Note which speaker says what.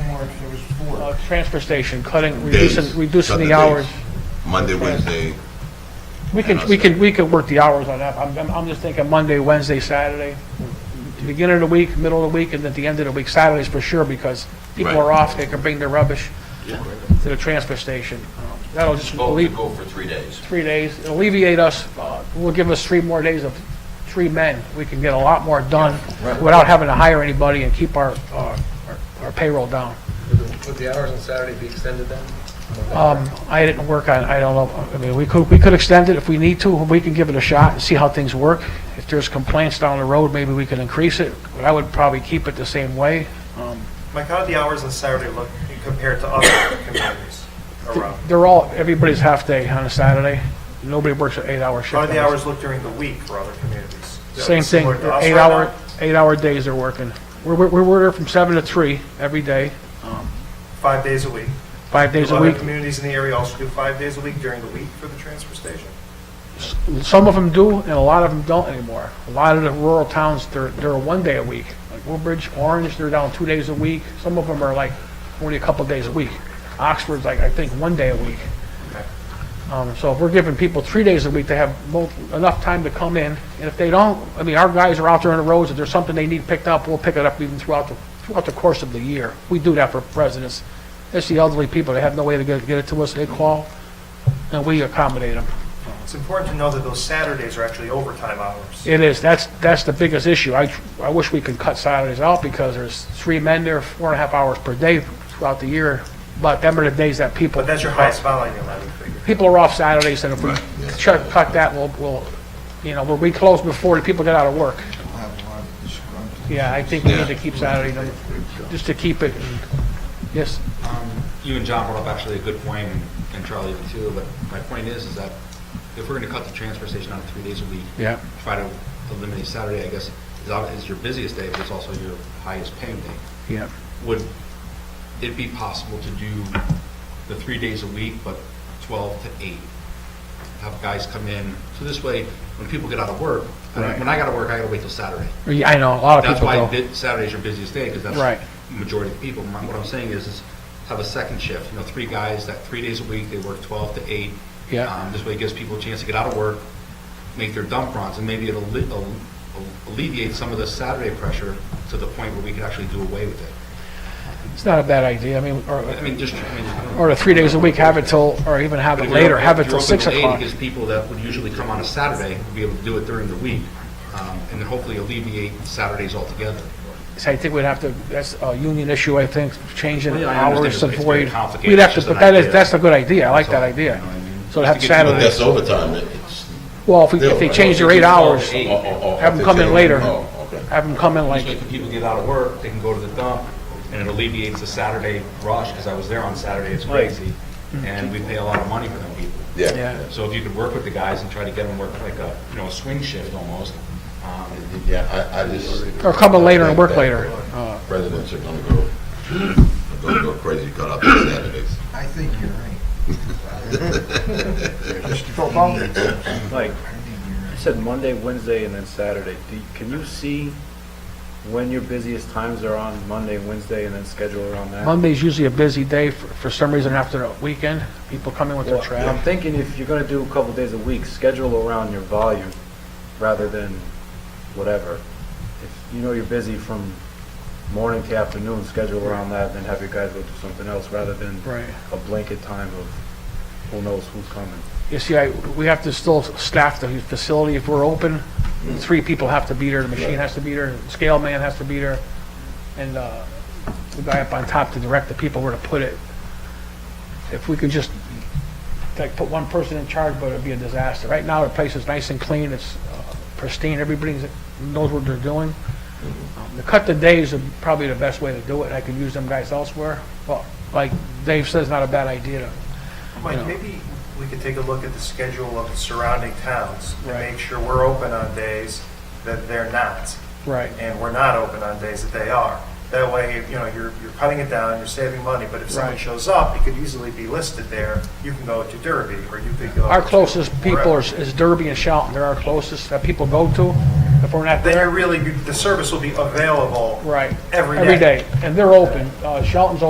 Speaker 1: was four.
Speaker 2: uh, transfer station, cutting, reducing, reducing
Speaker 3: Sunday
Speaker 2: the
Speaker 3: days.
Speaker 2: hours.
Speaker 3: Monday, Wednesday,
Speaker 2: We
Speaker 3: And
Speaker 2: can,
Speaker 3: us
Speaker 2: we can,
Speaker 3: there.
Speaker 2: we could work the hours on that. I'm, I'm- I'm just thinking Monday, Wednesday, Saturday, beginning of the week, middle of the week, and at the end of the week, Saturdays for sure, because people
Speaker 3: Right.
Speaker 2: are off, they can bring their rubbish to the transfer station. Um, That'll just
Speaker 4: Vote to
Speaker 2: alleviate,
Speaker 4: go for three days.
Speaker 2: three days, It'll alleviate us, uh, will give us three more days of three men. We can get a lot more done without having to hire anybody and keep our, uh, our- our payroll down.
Speaker 5: Would the hours on Saturday be extended then?
Speaker 2: Um, I didn't work on, I don't know, I mean, we could, we could extend it if we need to, we can give it a shot and see how things work. If there's complaints down the road, maybe we can increase it, but I would probably keep it the same way. Um,
Speaker 6: Mike, how do the hours on Saturday look compared to other communities around?
Speaker 2: They're all, everybody's half day on a Saturday, nobody works an eight-hour shift.
Speaker 6: How do the
Speaker 2: on a-
Speaker 6: hours look during the week for other communities? Is that
Speaker 2: Same thing,
Speaker 6: similar to us right
Speaker 2: eight-hour,
Speaker 6: now?
Speaker 2: eight-hour days they're working. We're, we're, we're there from seven to three every day,
Speaker 6: Five days a week.
Speaker 2: five days
Speaker 6: Do
Speaker 2: a
Speaker 6: other
Speaker 2: week.
Speaker 6: communities in the area also do five days a week during the week for the transfer station?
Speaker 2: Some of them do, and a lot of them don't anymore. A lot of the rural towns, they're, they're one day a week. Like Woodbridge, Orange, they're down two days a week. Some of them are like only a couple days a week. Oxford's like, I think, one day a week. Um, so if we're giving people three days a week, they have mo- enough time to come in. And if they don't, I mean, our guys are out there on the roads. If there's something they need picked up, we'll pick it up even throughout the, throughout the course of the year. We do that for residents. It's the elderly people. They have no way to get, get it to us. They call, and we accommodate them.
Speaker 6: It's important to know that those Saturdays are actually overtime hours.
Speaker 2: It is, that's, that's the biggest issue. I, I wish we could cut Saturdays out because there's three men there, four and a half hours per day throughout the year. But them are the days that people,
Speaker 6: But that's your highest volume, I would figure.
Speaker 2: people are off Saturdays and if we
Speaker 3: Right, yes.
Speaker 2: cut, cut that, we'll, we'll, you know, we'll be closed before the people get out of work.
Speaker 1: We'll have a lot of disgruntled.
Speaker 2: Yeah, I think we need to
Speaker 3: Yeah.
Speaker 2: keep Saturday, number- just to keep it, yes.
Speaker 7: you and John brought up actually a good point, and- and Charlie even too, but my point is, is that if we're gonna cut the transfer station down to three days a week.
Speaker 2: Yeah.
Speaker 7: Try to eliminate Saturday, I guess, is, ob- is your busiest day, but it's also your highest paying day.
Speaker 2: Yeah.
Speaker 7: Would it be possible to do the three days a week, but twelve to eight? Have guys come in, so this way, when people get out of work, I mean,
Speaker 2: Right.
Speaker 7: when I gotta work, I gotta wait till Saturday.
Speaker 2: Yeah, I know, a lot of
Speaker 7: That's
Speaker 2: people
Speaker 7: why
Speaker 2: go.
Speaker 7: di- Saturday's your busiest day, because that's
Speaker 2: Right.
Speaker 7: the majority of people. My- What I'm saying is, is have a second shift, you know, three guys, that three days a week, they work 12 to 8.
Speaker 2: Yeah.
Speaker 7: Um, This way it gives people a chance to get out of work, make their dump runs, and maybe it'll alle- al- alleviate some of the Saturday pressure to the point where we could actually do away with it.
Speaker 2: It's not a bad idea, I mean,
Speaker 7: I
Speaker 2: or,
Speaker 7: mean, just, I mean.
Speaker 2: or the three days a week, have it till, or even have it later, have it till six o'clock.
Speaker 7: Because people that would usually come on a Saturday would be able to do it during the week, um, and then hopefully alleviate Saturdays altogether.
Speaker 2: So I think we'd have to, that's a union issue, I think, changing
Speaker 7: Well, yeah, I understand
Speaker 2: hours
Speaker 7: it's-
Speaker 2: to
Speaker 7: it's very
Speaker 2: void.
Speaker 7: complicated.
Speaker 2: We'd have
Speaker 7: It's
Speaker 2: to,
Speaker 7: just
Speaker 2: but
Speaker 7: an
Speaker 2: that is,
Speaker 7: idea.
Speaker 2: that's a good idea, I like that
Speaker 7: all,
Speaker 2: idea.
Speaker 7: you know what I mean?
Speaker 2: So to
Speaker 7: Just
Speaker 2: have
Speaker 7: to get people-
Speaker 3: but
Speaker 2: Saturday,
Speaker 3: that's overtime, it- it's.
Speaker 2: well, if we- if they change their eight hours,
Speaker 3: Oh, oh, oh,
Speaker 2: Have 'em
Speaker 3: they
Speaker 2: come in
Speaker 3: change.
Speaker 2: later.
Speaker 3: Oh, okay.
Speaker 2: have them come in like,
Speaker 7: Usually if people get out of work, they can go to the dump, and it alleviates the Saturday rush, because I was there on Saturday, it's crazy, and we pay a lot of money for them people.
Speaker 3: Yeah.
Speaker 2: yeah.
Speaker 7: So if you could work with the guys and try to get them work like a, you know, a swing shift almost, um,
Speaker 3: Yeah, I, I just.
Speaker 2: Or come in later and work
Speaker 3: I think that
Speaker 2: later. Uh,
Speaker 3: Residents are gonna go, gonna go crazy cut up on Saturdays.
Speaker 1: I think you're right. Just
Speaker 5: Football?
Speaker 1: immediate. I
Speaker 8: Like,
Speaker 1: think you're right.
Speaker 8: I said Monday, Wednesday, and then Saturday. Do, can you see when your busiest times are on Monday, Wednesday, and then schedule around that?
Speaker 2: Monday's usually a busy day, for, for some reason after the weekend, people come in with their
Speaker 8: Well, I'm
Speaker 2: trash.
Speaker 8: thinking if you're gonna do a couple days a week, schedule around your volume rather than whatever. If you know you're busy from morning to afternoon, schedule around that, then have your guys go do something else rather than
Speaker 2: Right.
Speaker 8: a blanket time of who knows who's coming.
Speaker 2: You see, I, we have to still staff the facility if we're open. Three people have to be there, the machine has to be there, the scale man has to be there, and, uh, the guy up on top to direct the people where to put it. If we could just, like, put one person in charge, but it'd be a disaster. Right now, the place is nice and clean, it's uh, pristine, everybody knows what they're doing. Um, To cut the days is probably the best way to do it, I could use them guys elsewhere, but like Dave says, not a bad idea to
Speaker 6: Mike,
Speaker 2: Yeah.
Speaker 6: maybe we could take a look at the schedule of the surrounding towns and
Speaker 2: Right.
Speaker 6: make sure we're open on days that they're not.
Speaker 2: Right.
Speaker 6: And we're not open on days that they are. That way, you know, you're, you're cutting it down, you're saving money, but if someone
Speaker 2: Right.
Speaker 6: shows up, it could easily be listed there. You can go to Derby, or you could go.
Speaker 2: Our
Speaker 6: to
Speaker 2: closest people
Speaker 6: wherever.
Speaker 2: is is Derby and Shelton, they're our closest that people go to. If we're not
Speaker 6: Then you're
Speaker 2: there,
Speaker 6: really, the service will be available.
Speaker 2: right.
Speaker 6: Every day.
Speaker 2: Every day, and they're open. Uh, Shelton's